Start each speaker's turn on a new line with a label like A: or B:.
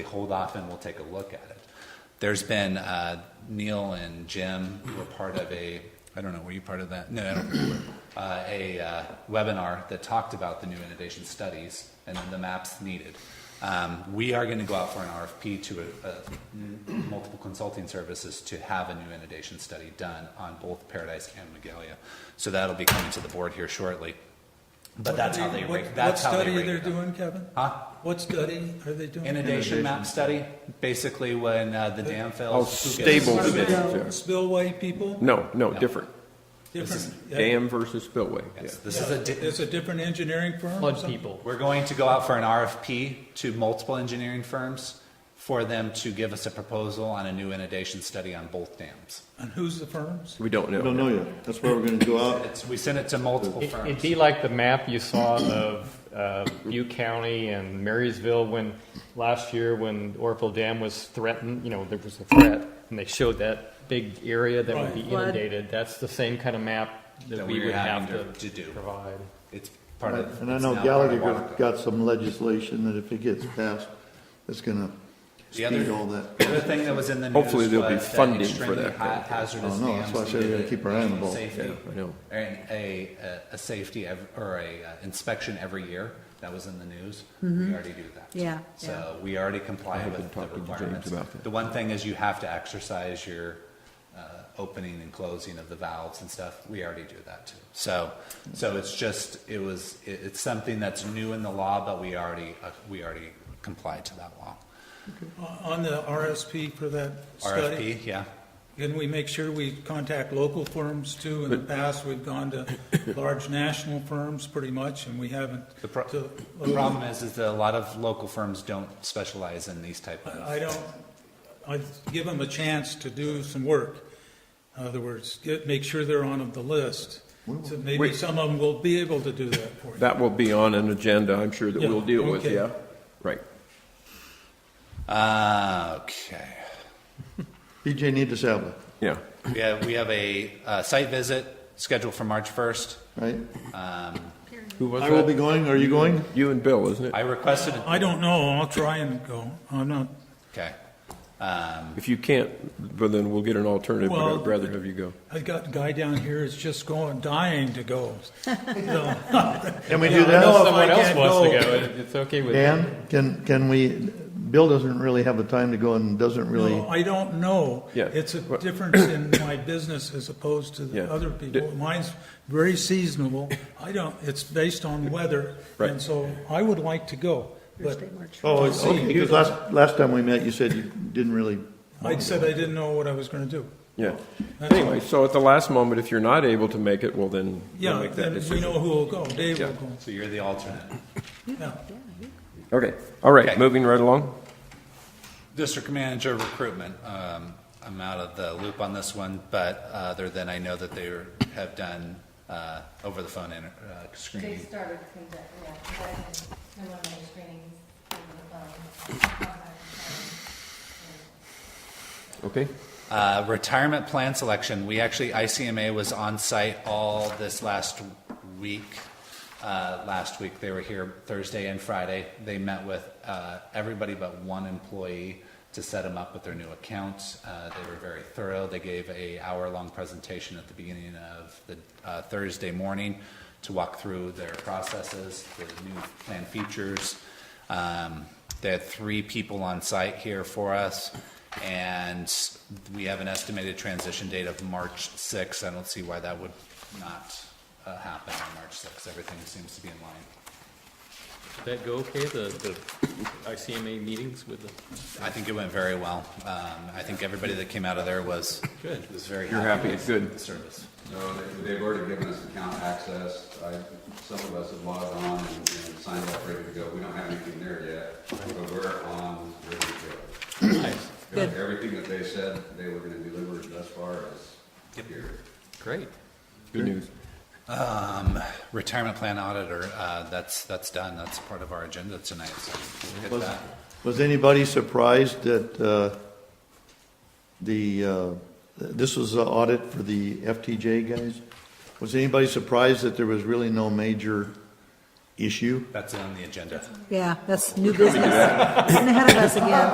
A: hold off and we'll take a look at it. There's been, uh, Neil and Jim were part of a, I don't know, were you part of that? No, I don't think you were. Uh, a uh, webinar that talked about the new innovation studies and the maps needed. Um, we are going to go out for an RFP to uh, uh, multiple consulting services to have a new innovation study done on both Paradise and Magalia. So that'll be coming to the board here shortly. But that's how they rate.
B: What-
A: That's how they
B: What
A: rate
B: study are
A: it
B: they
A: up.
B: doing, Kevin?
A: Huh?
B: What study are they doing?
A: Inundation map study, basically when uh, the dam
C: Oh,
A: fails. who gets-
C: stable
B: Spillway-
C: bid.
B: Spillway people?
C: No, no, different.
B: Different. yeah.
C: Dam versus spillway, yeah.
A: Yes, This is a, di-
B: It's a different engineering firm? or
D: flood
B: something?
D: people.
A: we're going to go out for an RFP to multiple engineering firms for them to give us a proposal on a new inundation study on both dams.
B: And who's the firms?
C: We don't
E: We don't
C: know.
E: know yet. That's where we're gonna go out.
A: It's, we sent it to multiple
D: It- It'd
A: firms.
D: be like the map you saw of uh, Butte County and Marysville when, last year, when Orville Dam was threatened, you know, there was a threat, and they showed that big area that would be
F: Flood.
D: inundated. That's the same kind of map
A: That
D: that we
A: we're
D: would
A: having
D: have to
A: to- to do.
D: provide.
A: It's part of.
E: And I
A: it's
E: know
A: now part
E: Gallagher
A: of
E: got-
A: Wabaco.
E: got some legislation that if it gets passed, it's gonna
A: The other-
E: speed all that.
A: The other thing that was in the news.
C: Hopefully there'll be
A: was that
C: funding for
A: extremely
C: that.
A: ha- Hazardous
E: Oh, no, that's
A: dams
E: why I said we
A: needed
E: gotta keep our eye on the ball.
A: safety-
C: Yeah, I know.
A: And a, a, a safety ev- or a uh, inspection every year, that was in the news. We already do that.
F: Mm-hmm. Yeah,
A: So we already comply
C: have been
A: with the
C: talking to James
A: requirements.
C: about that.
A: The one thing is you have to exercise your, uh, opening and closing of the valves and stuff. We already do that too. So, so it's just, it was, it, it's something that's new in the law, but we already, uh, we already complied to that law.
B: Uh, On the RSP for that study?
A: RFP, yeah.
B: Can we make sure we contact local firms too? In the past, we've gone to large national firms pretty much, and we haven't.
A: The pro-
B: to-
A: The problem is, is that a lot of local firms don't specialize in these type of.
B: I don't, I give them a chance to do some work. In other words, get, make sure they're on the list. So maybe
C: Wait.
B: some of them will be able to do that for you.
C: That will be on an agenda, I'm sure, that
B: Yeah,
C: we'll deal with,
B: okay.
C: yeah? Right.
A: Uh, okay.
E: BJ need to salve,
C: Yeah.
A: We have, we have a, uh site visit scheduled for March first.
E: right?
C: Who was
E: I will be
C: that?
E: going. Are you going?
C: You and Bill, isn't it?
A: I requested,
B: I don't know, I'll try and go. I'm not,
A: okay.
C: If you can't, but then we'll get an alternative, but
B: Well-
C: I'd rather have you go.
B: I got a guy down here is just going, dying to go. So-
E: Can we
B: I know
D: If
E: do
B: if
E: that?
D: someone
B: I
D: else
B: can't
D: wants to
B: go-
D: go, it- it's okay with me.
E: Dan, can, can we, Bill doesn't really have the time to go and doesn't really,
B: No, I don't know.
C: Yeah.
B: It's a difference in my business as opposed to the
C: Yeah.
B: other people. Mine's very seasonable. I don't, it's based on weather.
C: Right.
B: And so I would like to go, but
E: oh,
B: I'll see.
E: okay, because last, last time we met, you said you didn't really,
B: I said I didn't know what I was going to do.
C: Yeah.
B: That's
C: Anyway, so at the last moment, if you're not able to make it, well, then we'll
B: Yeah,
C: make
B: then
C: that
B: we know
C: decision.
B: who will go. Dave will
C: Yeah.
B: go.
A: So you're the alternate.
B: Yeah.
C: Okay, all
A: Okay.
C: right, moving right along.
A: District manager recruitment, um, I'm out of the loop on this one, but uh, other than I know that they were- have done, uh, over the phone inter, uh,
G: They
A: screening.
G: started from that, yeah, that, and one of those screenings over the phone.
C: Okay,
A: Uh, retirement plan selection, we actually, ICMA was on site all this last week. Uh, last week, they were here Thursday and Friday. They met with, uh, everybody but one employee to set them up with their new account. Uh, they were very thorough. They gave a hour-long presentation at the beginning of the, uh, Thursday morning to walk through their processes, the new plan features. Um, they had three people on site here for us, and we have an estimated transition date of March 6th. I don't see why that would not uh, happen on March 6th. Everything seems to be in line.
H: That go okay, the, the ICMA meetings with the,
A: I think it went very well. Um, I think everybody that came out of there was,
H: Good.
A: was very
C: You're
A: happy
C: happy,
A: with
C: good.
A: the service.
I: No, they- they've already given us account access. I, some of us have logged on and and signed up, ready to go. We don't have anything there yet, but we're on, ready to
H: nice,
I: go. Everything that they said they were gonna deliver thus far is here.
H: great.
C: good news.
A: Um, Retirement plan auditor, uh, that's, that's done. That's part of our agenda tonight, so we'll get
E: Was-
A: that.
E: was anybody surprised that, uh, the, uh, this was the audit for the FTJ guys? Was anybody surprised that there was really no major issue?
A: That's on the agenda.
F: Yeah, that's new business. In ahead of us again.